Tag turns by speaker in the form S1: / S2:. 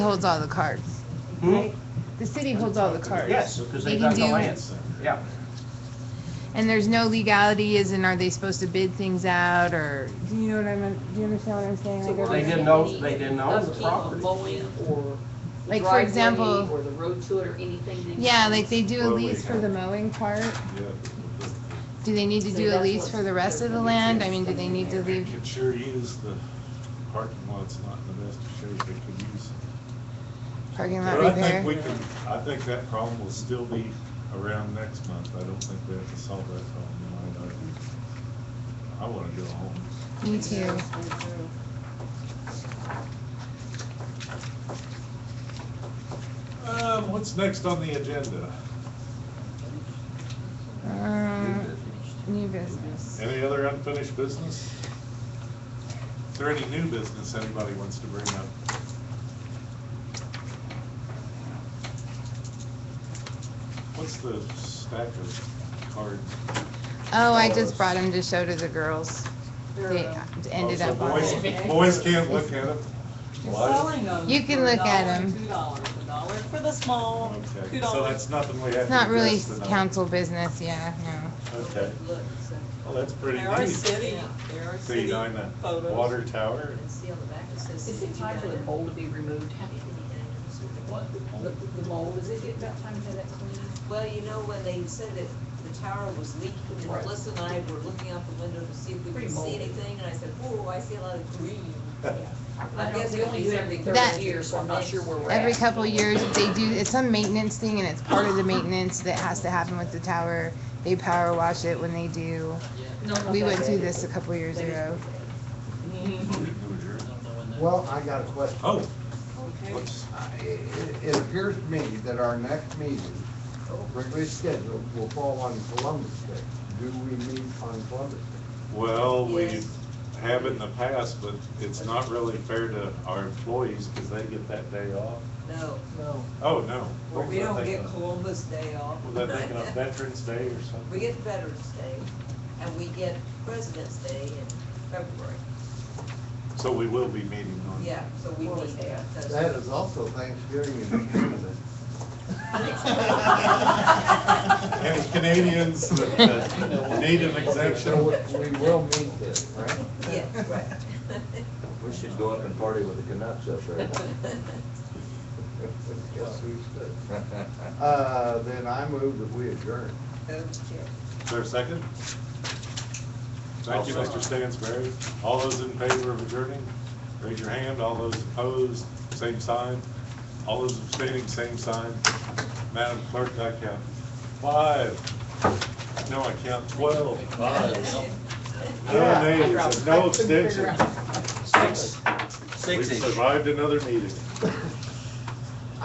S1: holds all the cards, right? The city holds all the cards.
S2: Hmm? Yes, because
S1: They
S2: they
S1: can
S2: got the
S1: do-
S2: land. Yeah,
S1: And there's no legality, as in are they supposed to bid things out, or, do you know what I'm, do you understand what I'm saying? Like, are
S2: they
S1: they-
S2: didn't own, they didn't own the
S3: upkeep
S2: property.
S3: of mowing or
S1: Like, for
S3: driveway
S1: example-
S3: Or the road to it or anything. they-
S1: Yeah, like they do a
S4: Well, we
S1: lease for the mowing part,
S4: Yeah,
S1: do they need to
S3: So
S1: do a
S3: that's
S1: lease
S3: what's-
S1: for the rest of the land? I mean, do they need to
S4: they
S1: leave,
S4: could sure use the parking lot's not in the best of shape they could use.
S1: parking lot
S4: But I think
S1: repair?
S4: we can, I think that problem will still be around next month. I don't think we have to solve that problem tonight. I- I wanna go home.
S1: Me too.
S4: Um, what's next on the agenda?
S1: Um, New business.
S4: Any other unfinished business? Is there any new business anybody wants to bring up? What's the stack of cards?
S1: Oh, I just brought them to show to the girls. They
S3: They're
S1: ended
S4: Oh,
S1: up
S4: so
S1: on
S4: boys-
S1: it.
S4: Boys can't look at them?
S3: selling them
S1: You can
S3: for a
S1: look at
S3: dollar,
S1: 'em.
S3: Two dollars, a dollar for the small,
S4: Okay,
S3: two
S4: so
S3: dollars.
S4: that's nothing we have
S1: It's
S4: to
S1: not really
S4: address tonight.
S1: council business, yeah, no.
S4: Okay,
S3: Look, so-
S4: well, that's pretty
S5: There are
S4: neat.
S5: city, there are
S4: See,
S5: city
S4: down the
S5: photos.
S4: water tower,
S3: Is it time for the mold to be removed? Have you-
S5: What?
S3: The the mold, is it about time to have that cleaned?
S6: Well, you know, when they said that the tower was leaking, and
S3: Right.
S6: Melissa and I were looking out the window to see if we
S3: Pretty
S6: could see
S3: moldy.
S6: anything, and I said, whoa, I see a lot of green.
S3: I guess we only do it every
S1: That-
S3: third year, so I'm not sure where we're at.
S1: Every couple years, they do, it's some maintenance thing and it's part of the maintenance that has to happen with the tower. They power wash it when they do. We went through this a couple years ago.
S7: Well, I got a question.
S4: oh,
S5: Okay.
S4: whoops.
S7: I- It it appears to me that our next meeting, regularly scheduled, will fall on Columbus Day. Do we meet on Columbus Day?
S4: Well, we
S6: Yes.
S4: have in the past, but it's not really fair to our employees because they get that day off.
S6: No,
S7: No.
S4: Oh, no.
S6: Well, we
S4: What
S6: don't
S4: they
S6: get
S4: gonna-
S6: Columbus Day off.
S4: Well, they're thinking of Veterans Day or
S6: We
S4: something.
S6: get Veterans Day, and we get President's Day in February,
S4: So we will be meeting on.
S6: yeah, so we
S7: Well,
S6: need that. That's-
S7: That is also Thanksgiving in Canada.
S4: And Canadians that that need an
S7: So
S4: exemption.
S7: we- we will meet this, right?
S6: Yeah, right.
S8: We should go up and party with the Canucks up there.
S7: Yes, we should. Uh, Then I move that we adjourn.
S6: Okay.
S4: Is there a second? Thank you, Mr. Stansberry. All those in favor of adjourning, raise your hand. All those opposed, same sign. All those abstaining, same sign. Madam Clerk, I count five. No, I count twelve. No names, and no abstentions.
S2: six,
S4: We've
S2: six-ish.
S4: survived another meeting.